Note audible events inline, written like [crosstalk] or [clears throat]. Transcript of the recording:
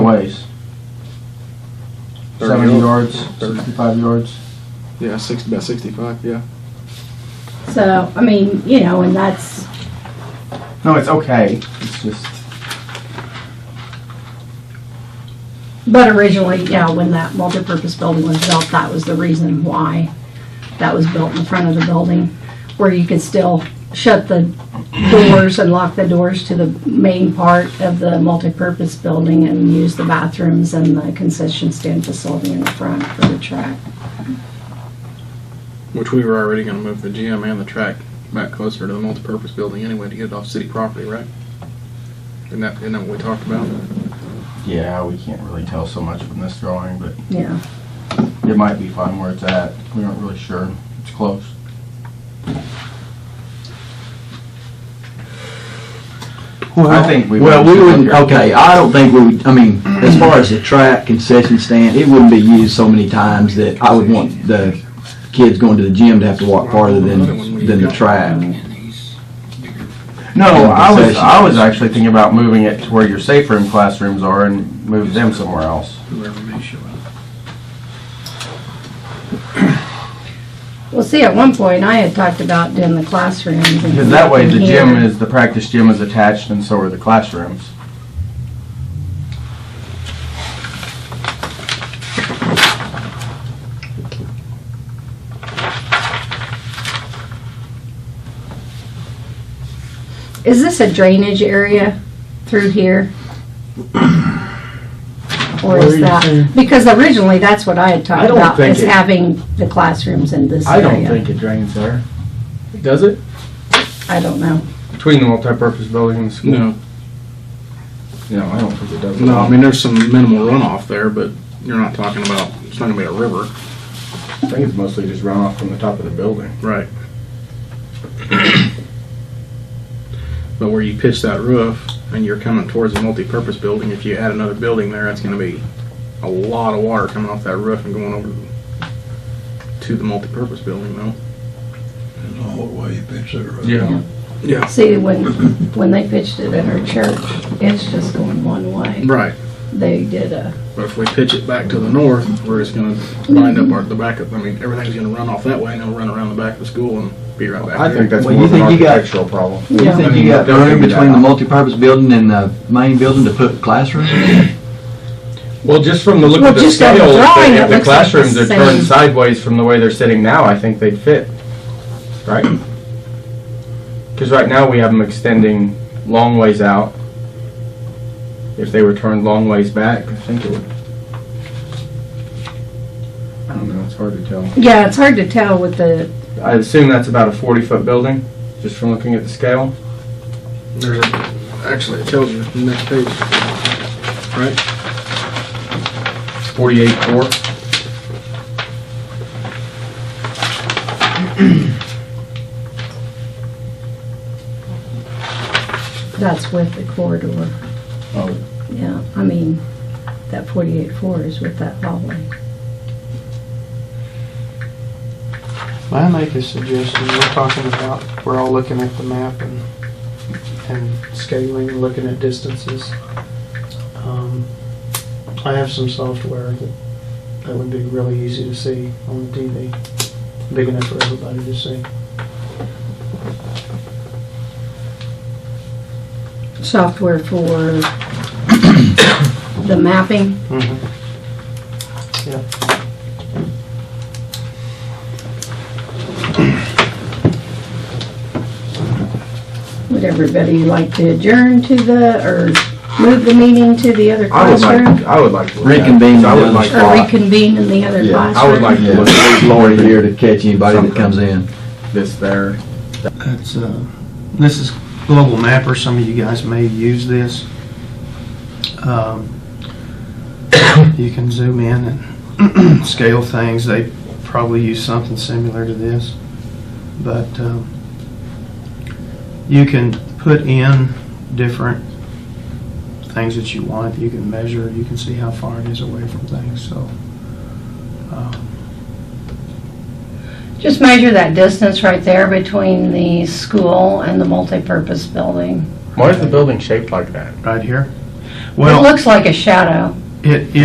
twice. 30 Seventy yards, Thirty. sixty-five yards. Yeah, six, about sixty-five, yeah. So, I mean, you know, and that's, No, it's okay. It's just, but originally, yeah, when that multipurpose building was built, that was the reason why that was built in front of the building, where you could still shut the doors and lock the doors to the main part of the multipurpose building and use the bathrooms and the concession stand facility in the front for the track. Which we were already gonna move the gym and the track back closer to the multipurpose building anyway to get it off city property, right? Isn't that, isn't that what we talked about? yeah, we can't really tell so much from this drawing, but Yeah, it might be fine where it's at. We aren't really sure. It's close. I think we Well, would we look wouldn't, here. okay, I don't think we would, I mean, as far as the track concession stand, it wouldn't be used so many times that I would want the kids going to the gym to have to walk farther than, than the track. No, Yeah, I was, concession. I was actually thinking about moving it to where your safe room classrooms are and move them somewhere else. Whoever may show up. well, see, at one point, I had talked about doing the classrooms. and- Because that way the gym here. is, the practice gym is attached and so are the classrooms. Is this a drainage area through [clears throat] here? Or What are is you saying? that, because originally, that's what I had I talked don't about, think is it- having the classrooms in this area. it drains there. Does it? I don't know. Between the multipurpose building and the school? No, No, I don't think it does. no, I mean, there's some minimal runoff there, but you're not talking about, it's not gonna be a river. I think it's mostly just runoff from the top of the building. Right. But where you pitch that roof and you're coming towards a multi-purpose building, if you add another building there, that's gonna be a lot of water coming off that roof and going over to the multi-purpose building though. There's a whole way you pitch that road. Yeah. Yeah. See, when, when they pitched it in our church, it's just going one way. Right, They did a, but if we pitch it back to the north, where it's gonna wind up our, the back of, I mean, everything's gonna run off that way and it'll run around the back of the school and be right back there. that's Well, you think you got- problem. You Yeah. think you got Don't room do that. between the multipurpose building and the main building to put classrooms? Well, just from the look Well, of the just on the scale, if drawing, they- it if the looks like the classrooms are same. turned sideways from the way they're sitting now, I think they'd fit, right? Because right now, we have them extending long ways out. If they were turned long ways back, I think it would. I don't know, it's hard to tell. yeah, it's hard to tell with the, I assume that's about a 40-foot building, just from looking at the scale. There's a, actually, it tells you the next page. Right? 48-four. that's with the corridor. Oh. Yeah, I mean, that forty-eight four is with that hallway. May I make a suggestion? We're talking about, we're all looking at the map and, and scaling, and looking at distances. Um, I have some software that, that would be really easy to see on the TV, big enough for everybody to see. software for [coughs] the mapping. Would everybody like to adjourn to the, or move the meeting to the other I would like, classroom? I would like to look at it. Reconvene I would the like other Or to- reconvene in the other Yeah, classroom? I would like to look at There's Lori here to catch anybody that comes in. this there. That's, uh, this is Global Mapper, some of you guys may use this. Um, You can zoom in and [clears throat] scale things, they probably use something similar to this. But um, you can put in different things that you want, you can measure, you can see how far it is away from things, so. um, Just measure that distance right there between the school and the multipurpose building. Why is the building shaped like that? Right here? It Well. looks like a shadow. It,